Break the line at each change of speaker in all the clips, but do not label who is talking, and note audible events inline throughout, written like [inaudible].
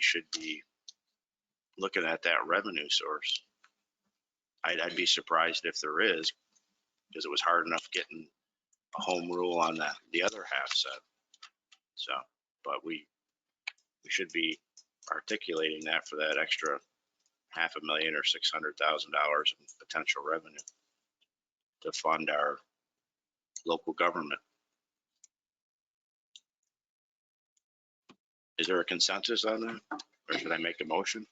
should be looking at that revenue source. I'd, I'd be surprised if there is, because it was hard enough getting a home rule on the, the other half set. So, but we, we should be articulating that for that extra half a million or six hundred thousand dollars in potential revenue to fund our local government. Is there a consensus on that? Or should I make a motion?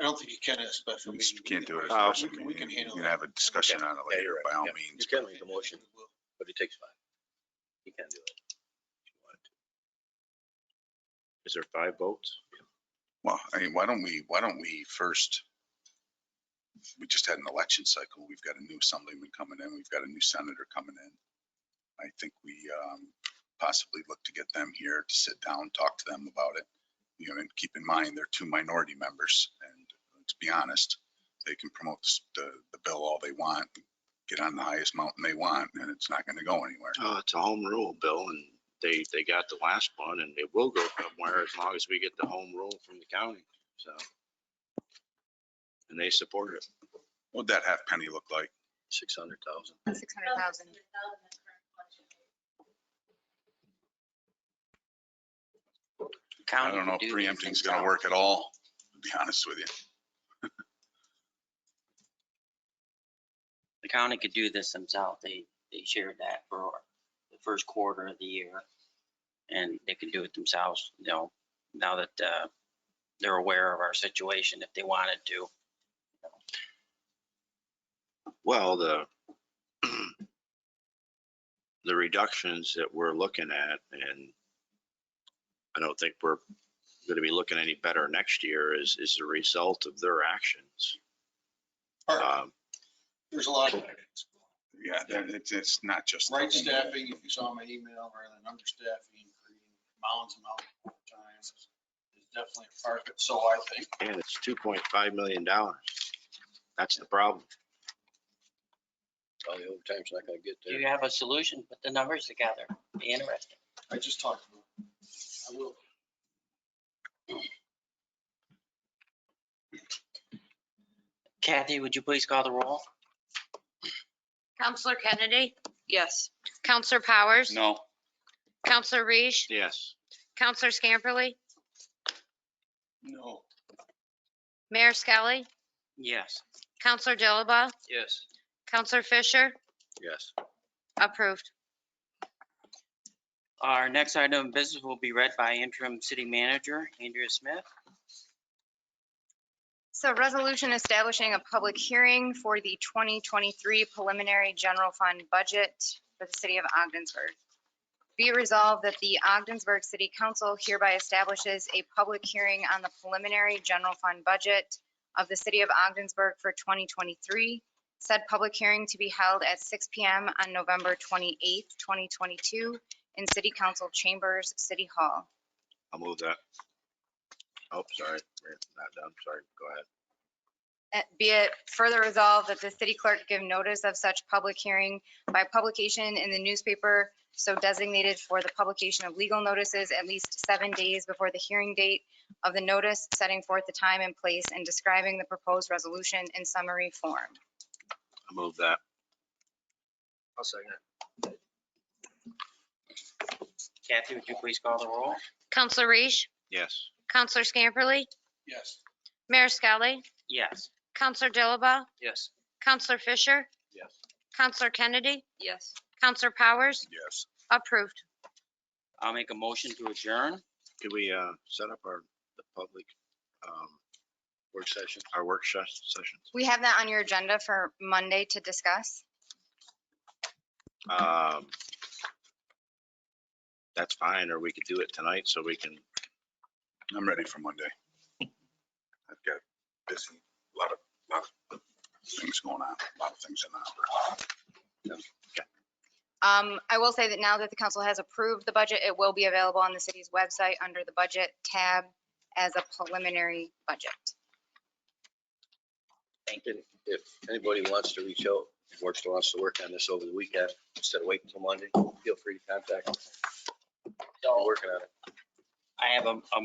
I don't think you can at a special
We
meeting.
just can't do it.
Oh,
as a
we can- we can handle
You can have a discussion on it
Yeah,
later,
you're right.
by all
Yeah.
means.
You can make a motion, but it takes five. You can do it.
Is there five votes?
Well, I mean, why don't we, why don't we first? We just had an election cycle. We've got a new assemblyman coming in. We've got a new senator coming in. I think we um, possibly look to get them here to sit down, talk to them about it. You know, and keep in mind, they're two minority members and let's be honest, they can promote this- the, the bill all they want, get on the highest mountain they want, and it's not going to go anywhere.
Oh, it's a home rule bill and they, they got the last one and it will go somewhere as long as we get the home rule from the county, so. And they support it.
What'd that half penny look like?
Six hundred thousand.
Six hundred thousand.
I don't know if preempting's gonna work at all, to be honest with you.
The county could do this themselves. They, they shared that for the first quarter of the year. And they could do it themselves, you know, now that uh, they're aware of our situation, if they wanted to.
Well, the, [clears throat] the reductions that we're looking at and I don't think we're going to be looking any better next year is, is the result of their actions.
Uh,
Or,
Um,
There's a lot of
Yeah, that- it's, it's not just. the
right
home
staffing, if you saw my email, rather than understaffing, creating mounds and mountains of time is definitely a part of it. So I think
And it's two point five million dollars. That's the problem.
All the overtime's not gonna get
Do
there.
you have a solution? Put the numbers together. Be interesting.
I just talked about, I will.
Kathy, would you please call the roll?
Counselor Kennedy,
Yes.
Counselor Powers.
bill. No,
Counselor Reese,
Yes.
Counselor Scamperly,
No,
Mayor Skelly,
Yes.
Counselor Dilaba,
Yes.
Counselor Fisher,
Yes.
approved.
Our next item of business will be read by interim city manager Andrea Smith.
So resolution establishing a public hearing for the 2023 preliminary general fund budget for the city of Ogdensburg. Be it resolved that the Ogdensburg City Council hereby establishes a public hearing on the preliminary general fund budget of the city of Ogdensburg for 2023. Said public hearing to be held at 6 PM on November 28th, 2022 in City Council Chambers, City Hall.
I'll move that. Oh, sorry. We're Not done. Sorry. Go ahead.
Uh, Be it further resolved that the city clerk give notice of such public hearing by publication in the newspaper so designated for the publication of legal notices at least seven days before the hearing date of the notice, setting forth the time and place and describing the proposed resolution in summary form.
I'll move that.
I'll second it.
Kathy, would you please call the roll?
Counselor Reese,
Yes.
Counselor Scamperly,
yes,
Mayor Skelly,
Yes.
Counselor Dilaba,
Yes.
Counselor Fisher,
Yes.
Counselor Kennedy,
Yes.
Counselor Powers,
yes.
approved.
I'll make a motion to adjourn.
Could we, uh, set up our, the public, um,
Work session.
our work ses- sessions?
We have that on your agenda for Monday to discuss.
Um, that's fine, or we could do it tonight so we can,
I'm ready for Monday. I've got busy, a lot of, lot of things going on, a lot of things in the opera.
Um, I will say that now that the council has approved the budget, it will be available on the city's website under the budget tab as a preliminary budget.
Thank
And If anybody wants to reach out, if works wants to work on this over the weekend, instead of waiting till Monday, feel free to contact. us. We're working on it.
I have a, a